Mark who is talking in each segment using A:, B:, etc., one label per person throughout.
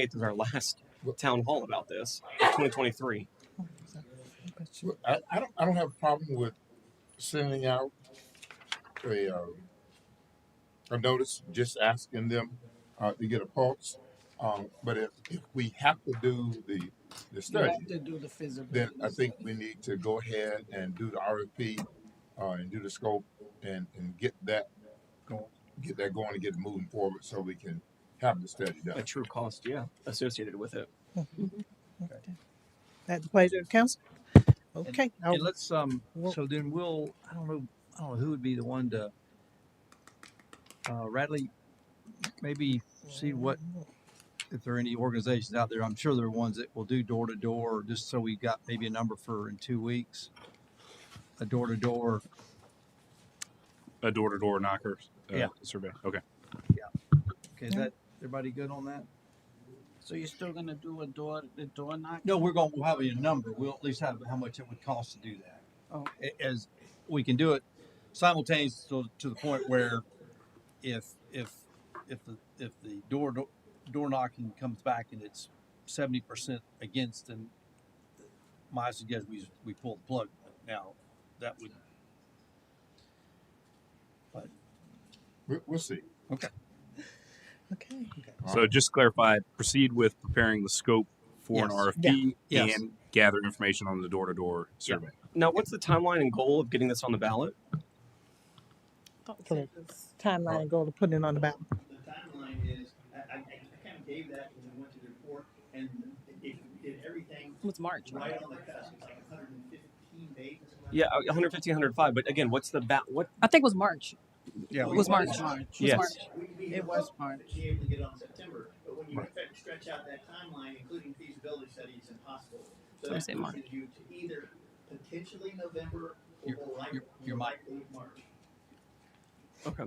A: 8th is our last town hall about this, of 2023.
B: Well, I, I don't, I don't have a problem with sending out a, um, a notice, just asking them, uh, to get a pulse. Um, but if, if we have to do the, the
C: You
B: study,
C: have to do the physical.
B: then I think we need to go ahead and do the RFP, uh, and do the scope and, and get that going, get that going and get it moving forward so we can have the study
A: A
B: done.
A: true cost, yeah, associated with it.
D: At the pleasure of council? Okay, I'll-
E: And let's, um,
D: Well-
E: so then we'll, I don't know, I don't know who would be the one to, uh, Radley, maybe see what, if there are any organizations out there, I'm sure there are ones that will do door to door, just so we got maybe a number for in two weeks. A door to door,
F: a door to door knocker uh,
E: Yeah.
F: survey. Okay.
E: okay, is
D: Yeah.
E: that, everybody good on that?
C: So you're still gonna do a door, the door knock?
E: No, we're going, we'll have a number, we'll at least have how much it would cost to do that.
C: Oh.
E: A- As, we can do it simultaneous to, to the point where if, if, if the, if the door, do- door knocking comes back and it's seventy percent against, then my suggestion, we, we pull the plug now, that would,
B: We, we'll see.
D: okay.
F: So just to clarify, proceed with preparing the scope for an
E: Yes.
F: RFP
E: Yeah. Yes.
F: and gather information on the door to door
A: Yeah.
F: survey.
A: Now, what's the timeline and goal of getting this on the ballot?
D: For the timeline and goal to put it on the ballot.
G: the timeline is, I, I, I kind of gave that when we went to the report, and if you did everything
H: It was March. right?
G: right on the cusp, it's like hundred and fifteen days. or something like
A: Yeah, 115, 105. But again, what's the ba- what
H: I think it was March.
E: yeah,
H: It was March.
C: It was March.
H: It was
A: Yes.
H: March.
G: that. We, we
C: It was
G: hoped
C: March.
G: to be able to get on September, but when you affect- stretch out that timeline, including feasibility studies and hospitals. So
H: I'm
G: that
H: saying March.
G: pushes you to either potentially November or
E: Your-
G: likely,
E: your- your mic.
G: likely March.
A: Okay.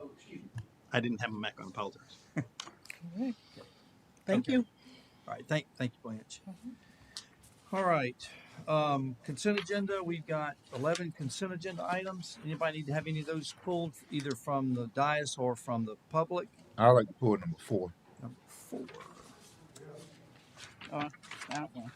G: Oh, excuse me.
E: I didn't have a mic on, apologize.
D: All right. Thank you.
E: All right, thank, thank you, Blanche. All right, um, consent agenda, we've got eleven consent agenda items. Anybody need to have any of those pulled either from the dais or from the public?
B: I like to pull number four.
E: Number four.
C: That one.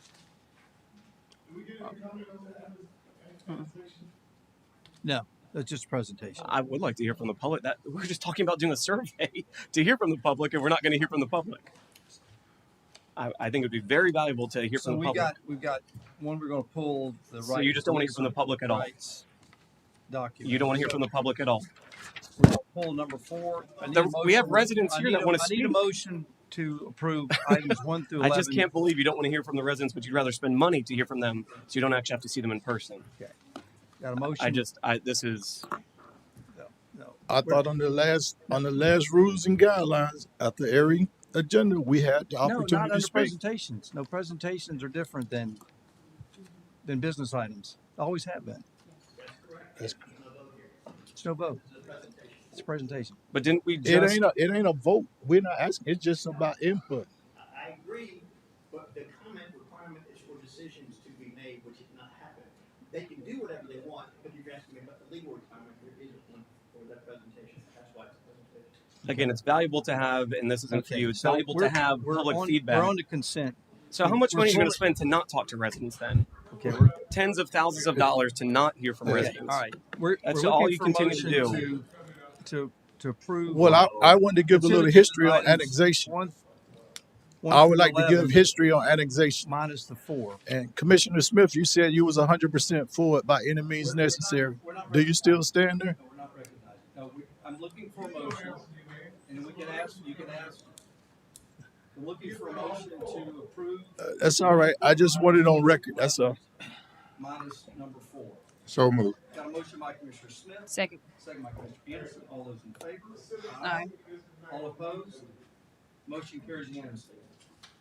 E: That's just a presentation.
A: I would like to hear from the public. That we're just talking about doing a survey to hear from the public, and we're not going to hear from the public. I, I think it would be very valuable to hear
E: So
A: from the
E: we
A: public.
E: got, we've got one we're gonna pull, the right.
A: So you just don't wanna hear from the public at all?
E: rights Document.
A: you don't want to hear from the public at all.
E: We're gonna pull number four. I need a
A: There- we have
E: motion-
A: residents
E: I
A: here
E: need
A: that
E: a-
A: wanna
E: I need a
A: speak.
E: motion to approve items one through
A: I
E: eleven.
A: just can't believe you don't want to hear from the residents, but you'd rather spend money to hear from them, so you don't actually have to see them in person.
E: Got a motion?
A: I just, I this is
E: No.
I: I thought on the last on the last rules and guidelines after every agenda we had the
E: No, not
I: opportunity
E: under
I: to speak.
E: presentations. No, presentations are different than, than business items. Always have been.
I: That's-
E: It's no vote. It's a presentation.
A: But didn't we
I: It
A: just?
I: ain't a it ain't a vote. We're not asking. It's just about input.
G: I, I agree, but the comment requirement is for decisions to be made, which has not happened. They can do whatever they want, but you're asking me about the legal requirement, there isn't one for that presentation, that's why it's a presentation.
A: Again, it's valuable to have, and this isn't for you. It's
E: so
A: valuable to
E: we're-
A: have
E: we're
A: public
E: on-
A: feedback.
E: We're on to consent.
A: so how much
E: we're
A: money are you going to
E: fully-
A: spend to not talk to residents then?
E: Okay, we're,
A: Tens of thousands of dollars to not hear from
E: okay,
A: residents.
E: all right. We're,
A: That's
E: we're
A: all
E: looking
A: you
E: for
A: continue to do.
E: motion To, to, to approve.
I: Well, I, I wanted to give a little
E: Consent
I: history on
E: items.
I: annexation.
E: One- one
I: I would
E: through
I: like to
E: 11
I: give history on annexation.
E: Minus the four.
I: And Commissioner Smith, you said you was hundred percent for it by any means necessary. Do you still stand
E: No,
I: there?
E: we're not recognized. No, we, I'm looking for a motion, and we can ask, you can ask. I'm looking for a motion to approve
I: Uh, That's all right. I just want it on record. That's all.
E: minus number four.
B: So moved.
E: Got a motion by Commissioner Smith,
H: Second.
E: second by Commissioner Peterson. All those in favor?
H: Aye.
E: All opposed? Motion carries unanimously.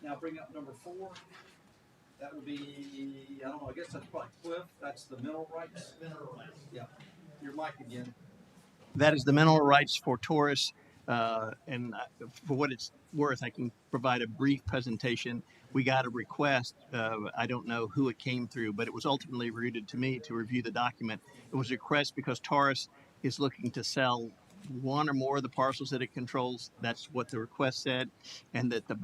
E: Now bring up number four. That would be, I don't know, I guess that's probably Cliff. That's the mineral rights. Mineral rights. Yeah. Your mic again.
G: That is the mineral rights for Taurus, uh, and I- for what it's worth, I can provide a brief presentation. We got a request, uh, I don't know who it came through, but it was ultimately routed to me to review the document. It was a request because Taurus is looking to sell one or more of the parcels that it controls. That's what the request said, and that the